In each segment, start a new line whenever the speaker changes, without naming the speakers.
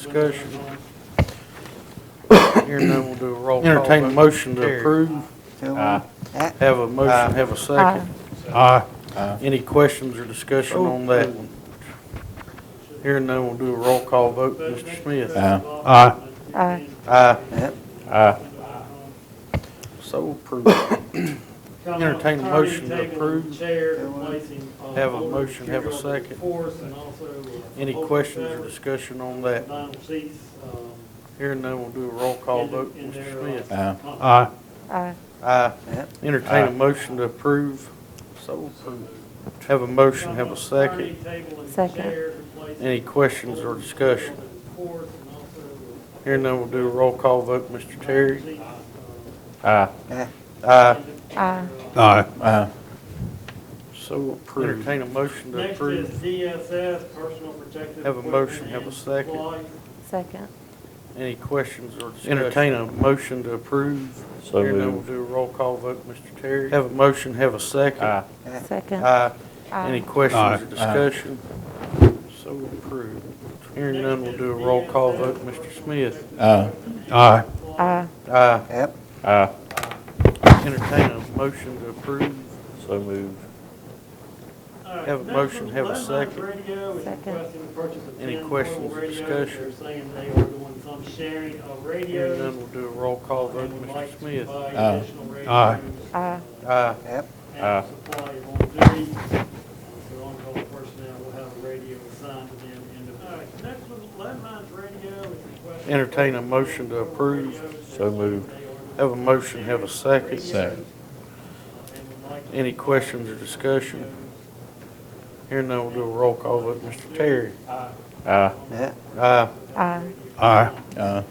Discussion. Here none, we'll do a roll call. Entertain a motion to approve. Have a motion, have a second. Aye. Any questions or discussion on that one? Here none, we'll do a roll call vote. Mr. Smith?
Aye.
Aye.
Aye. So approved. Entertain a motion to approve. Have
Have
a motion, have a second. Any questions or discussion on that? Here none, we'll do a roll call vote. Mr. Smith?
Aye.
Aye.
Aye. Entertain a motion to approve. So approved. Have a motion, have a second.
Second.
Any questions or discussion? Here none, we'll do a roll call vote. Mr. Terry?
Aye.
Aye.
Aye.
Aye.
So approved. Entertain a motion to
Next is
approve.
DSS, Personal Protective.
Have a motion,
Equipment
have a
and
second.
Supplies.
Second.
Any questions or discussion? Entertain a motion to approve.
So
Here none,
moved.
we'll do a roll call vote. Mr. Terry? Have a motion, have a second.
Aye.
Second.
Aye.
Aye.
Any
Aye.
questions or discussion? So approved. Hearing none, we'll do a roll call vote. Mr. Smith?
Aye.
Aye.
Aye.
Aye.
Entertain a motion to approve.
So moved.
Uh,
Have a
National
motion, have a
Lead Line
second.
Radio is
Second.
requesting the purchase of
Any
10
questions or
portable radios.
discussion?
They're saying they are doing some sharing
Hearing
of
none,
radios.
we'll do a roll call vote.
and would like
Mr.
to
Smith?
buy
Aye.
additional radios
Aye.
Aye.
Aye.
Aye.
Uh,
And supply of on duty. So on-call personnel will have a radio assigned to them individually. Next one, Landline's radio is requesting.
Entertain a motion to approve.
So moved.
Have a motion, have a second.
Second.
Any questions or discussion? Hearing none, we'll do a roll call vote. Mr. Terry?
Aye.
Aye.
Aye.
Aye.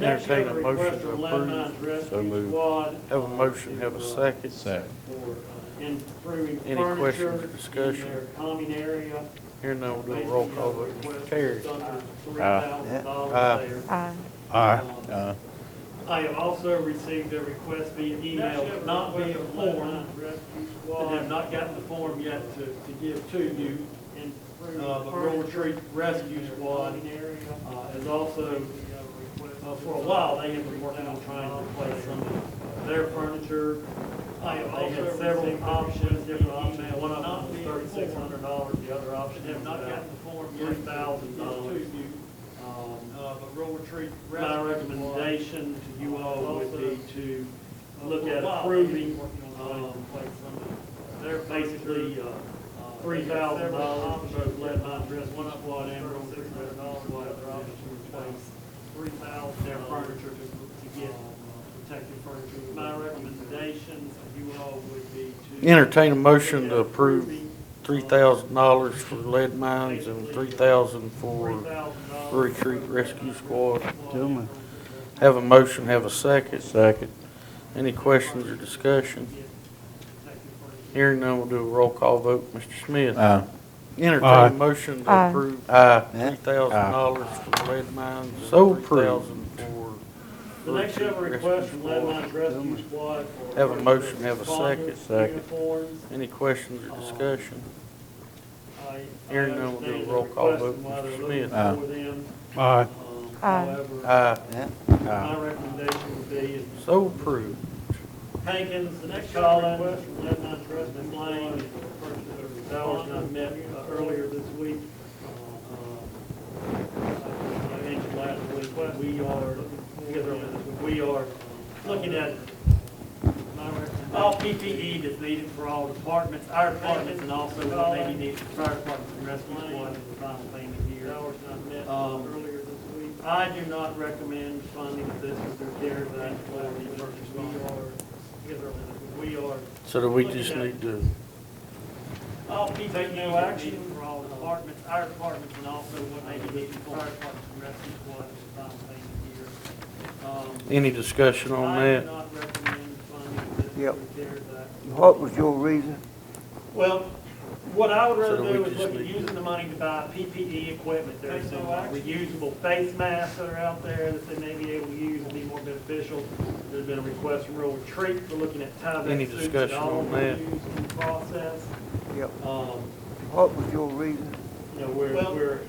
Entertain a motion to
Landline's
So
rescue
moved.
squad.
Have a
uh,
motion,
to,
have a
uh,
second.
for uh, improving
Any
furniture
questions or discussion?
in their common area.
Hearing none, we'll do a roll call vote. Mr. Terry? Aye.
$3,000 there.
Aye.
Aye.
Um, I have also received a request via email, but not via form, and have not gotten the form yet to, to give to you. Uh, the Rural Retreat Rescue Squad uh, is also, uh, for a while, they have been working on trying to replace some of their furniture. I have also several options, different options, one of them was thirty-six hundred dollars, the other option is about three thousand dollars. Um, Uh, My recommendation to you all would be to look at approving, um, they're basically, uh, three thousand dollars, both lead line dress, one squad and room, six hundred dollars, what other option to replace three thousand, uh, their furniture to, to get uh, protective furniture. My recommendation to you all would be to.
Entertain a motion to
Look at
approve
approving,
three
um,
thousand dollars for lead mines and three thousand for
$3,000
retreat rescue squad.
Do me.
Have a motion, have a second.
Second.
Any questions or discussion? Hearing none, we'll do a roll call vote. Mr. Smith? Entertain
Aye.
a motion to
Aye.
approve
Aye.
three thousand dollars for lead mines and three thousand for
The next
retreat
ever
rescue
request from Leadline
squad.
Rescue Squad for.
Have a motion, have a
responders,
second.
Second.
Uniforms.
Any questions or discussion?
I- I
Hearing none, we'll do a
understand the
roll call
request
vote.
and why they're
Mr.
looking
Smith.
Aye.
for them.
Aye.
Um,
Aye.
However,
Aye.
my recommendation would be is
So approved.
Hankins, the next Collins, Lebanon Trust, and Blaine, Bowers, and I met uh, earlier this week. Um, I mentioned last week, we are, together on this, we are looking at all PPE that's needed for all departments, our departments, and also what may be needed for fire departments and rescue squad, is the final thing here. Um, I do not recommend funding this with their CARES Act for the emergency fund. We are,
So do we just need to,
all people take no action for all departments, our departments, and also what may be needed for fire departments and rescue squad, is the final thing here. Um,
any discussion on
I do
that?
not recommend funding this
Yep.
with CARES Act.
What was your reason?
Well, what I would
So
rather
we
do is
just
look at
need to-
using the money to buy PPE equipment. There's some reusable face masks that are out there that they may be able to use and be more beneficial. There's been a request from Rural Retreat for looking at
Any
Tyvek suits that
discussion
all
on
were
that?
used in the process.
Yep.
Um,
What was your reason?
you know, we're, we're